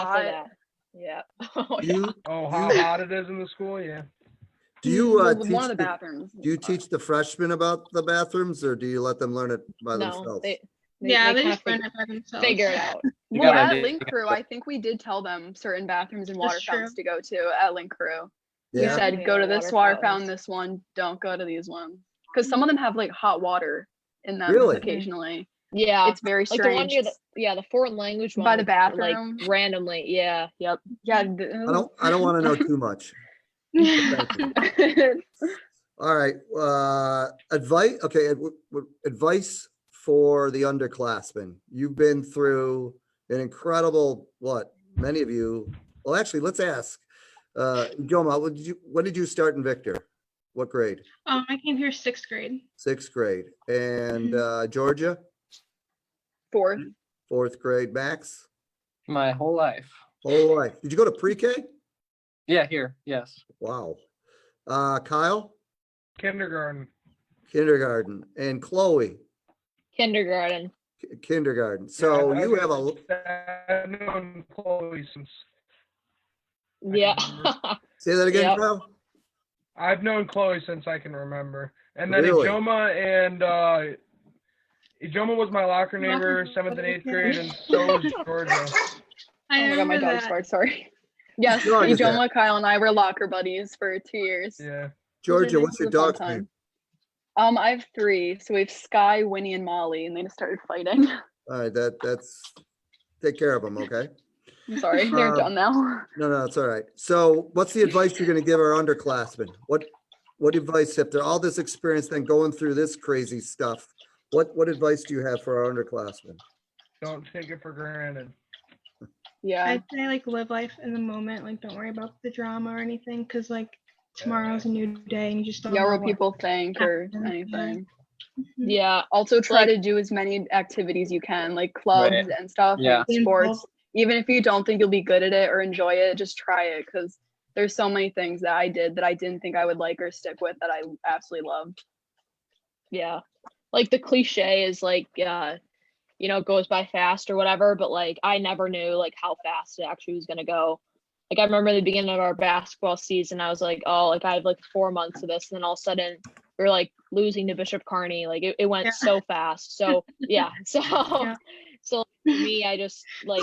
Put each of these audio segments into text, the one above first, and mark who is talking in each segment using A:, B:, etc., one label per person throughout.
A: hot. Yeah. Oh, yeah.
B: You,
C: Oh, how
B: You-
C: hot it is in the school, yeah.
B: do you, uh,
A: Well,
B: teach,
A: One of the
B: the-
A: bathrooms.
B: do you teach the freshmen about the bathrooms or do you let them learn it by
A: No,
B: themselves?
A: they.
D: Yeah, they
A: kinda
D: just learn
A: fig-
D: it by themselves.
A: Figure it out.
E: You
A: Well,
E: got
A: at
E: idea-
A: Link Crew, I think we did tell them certain bathrooms and
D: That's
A: water fountains
D: true.
A: to go to at Link Crew. We
B: Yeah,
A: said,
F: Yeah,
A: go to
F: water
A: this water fountain,
F: fountains.
A: this one, don't go to these ones. Because some of them have like hot water in them
B: Really?
A: occasionally.
F: Yeah,
A: It's very
F: Uh, like the one
A: strange.
F: near the yeah the foreign language one
A: By the
F: was,
A: bathroom.
F: like randomly. Yeah, yep.
A: Yeah.
B: I don't, I don't want to know too much. Thank you. All right, uh, advice, okay, ad- w- w- advice for the underclassmen. You've been through an incredible, what, many of you, well, actually, let's ask. Uh, Joma, what did you, when did you start in Victor? What grade?
D: Um, I came here sixth grade.
B: Sixth grade. And, uh, Georgia,
A: Fourth. Oh
B: fourth grade, Max?
E: My whole life.
B: Whole life. Did you go to pre-K?
E: Yeah, here. Yes.
B: Wow. Uh, Kyle,
C: Kindergarten.
B: kindergarten, and Chloe,
F: Kindergarten.
B: ki- kindergarten. So
C: I've-
B: you
C: I've
B: have a, l-
C: I've known Chloe since, can
F: Yeah.
B: say that again,
F: Yep.
B: Kyle?
C: I've known Chloe since I can remember. And then
B: Really?
C: Ijoma and, uh, Ijoma was my locker neighbor, seventh and eighth grade, and so was Georgia.
D: I
A: Oh my god,
D: remember
A: my dog's
D: that.
A: barked. Sorry. Yes,
B: Dog is there.
A: Ijoma, Kyle, and I were locker buddies for two years.
C: Yeah.
B: Georgia,
A: This
B: what's your
A: is a fun
B: dog's name?
A: time. Um, I have three. So we have Sky, Winnie, and Molly, and they just started fighting.
B: All right, that, that's, take care of them, okay?
A: I'm sorry, they're
B: Um,
A: done now.
B: No, no, it's all right. So what's the advice you're gonna give our underclassmen? What, what advice, after all this experience, then going through this crazy stuff, what, what advice do you have for our underclassmen?
C: Don't take it for granted.
A: Yeah,
D: I'd say like live life in the moment. Like don't worry about the drama or anything, because like tomorrow's a new day and you just don't.
A: yeah,
D: know
A: where
D: what-
A: people think or
D: happened, yeah.
A: anything.
D: mm-hmm.
F: yeah.
A: Also, try
F: like-
A: to do as many activities you can, like clubs
E: Right.
A: and stuff,
E: Yeah.
A: like sports. Even if you don't think you'll be good at it or enjoy it, just try it because there's so many things that I did that I didn't think I would like or stick with that I absolutely loved.
F: yeah like the cliche is like uh you know it goes by fast or whatever but like i never knew like how fast it actually was going to go like i remember the beginning of our basketball season i was like oh like i have like four months of this and then all of a sudden we are like losing to bishop carney like it, it went
D: Yeah.
F: so fast so yeah so
D: Yeah.
F: so for me i just like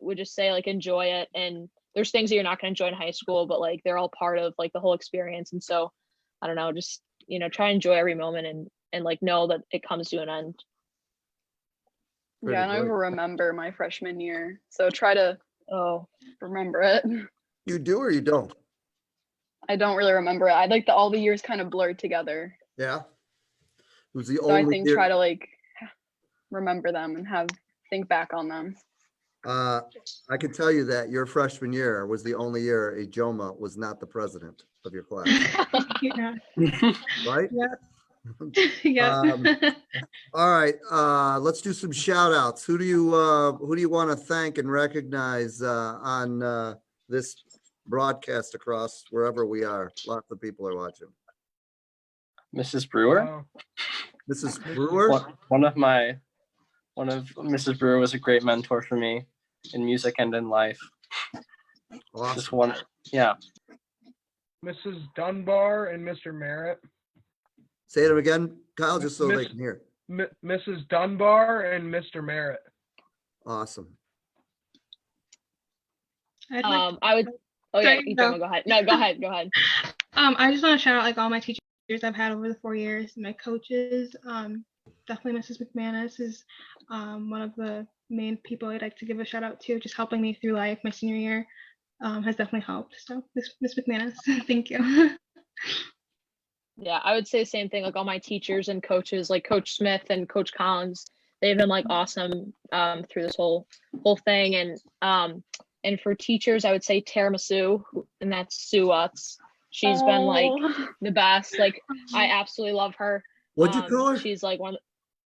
F: would just say like enjoy it and there's things that you're not going to enjoy in high school but like they're all part of like the whole experience and so i don't know just you know try and enjoy every moment and and like know that it comes to an end
B: Pretty
A: yeah, and I
B: good.
A: remember my freshman year, so try to
F: oh
A: remember it.
B: You do or you don't?
A: I don't really remember it. I like the all the years kind of blurred together,
B: Yeah? It was the
A: so I
B: only
A: think try
B: year,
A: to like remember them and have think back on them.
B: uh, I can tell you that your freshman year was the only year a Joma was not the president of your class,
D: Yeah.
B: right?
D: yeah.
B: Um, All right, uh, let's do some shout outs. Who do you, uh, who do you want to thank and recognize, uh, on, uh, this broadcast across wherever we are? Lots of people are watching.
E: Mrs. Brewer.
C: Wow.
B: Mrs. Brewer?
E: One, one of my, one of Mrs. Brewer was a great mentor for me in music and in life. Just
B: Awesome.
E: one. Yeah.
C: Mrs. Dunbar and Mr. Merritt.
B: Say it again, Kyle, just so they
C: Miss-
B: can hear.
C: M- Mrs. Dunbar and Mr. Merritt.
B: Awesome.
D: I'd like
F: um i would oh yeah
D: Sorry,
F: you
D: no.
F: don't go ahead no go ahead go ahead
D: Um, I just want to shout out like all my teachers I've had over the four years, my coaches. Um, definitely Mrs. McManus is um, one of the main people I'd like to give a shout out to, just helping me through life. My senior year um, has definitely helped. So, Miss Miss McManus, thank you.
F: yeah i would say the same thing like all my teachers and coaches like coach smith and coach collins they've been like awesome um through this whole whole thing and um and for teachers i would say tiramisu who- and that's sue Utz. She's been like
A: Oh.
F: the best like i absolutely love her
B: What'd you
F: Um,
B: call her?
F: She's like one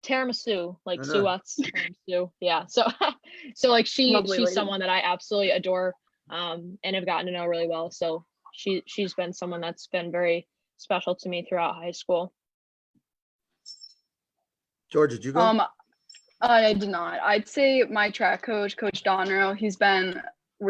F: tiramisu, like
B: I
F: Sue
B: know.
F: Watts, tiramisu. Yeah. So, so like she
A: Lovely
F: she's
A: lady.
F: someone that I absolutely adore, um, and have gotten to know really well. So she she's been someone that's been very special to me throughout high school.
B: George, did you go?
A: Um, I did not. I'd say my track coach, Coach Donrow, he's been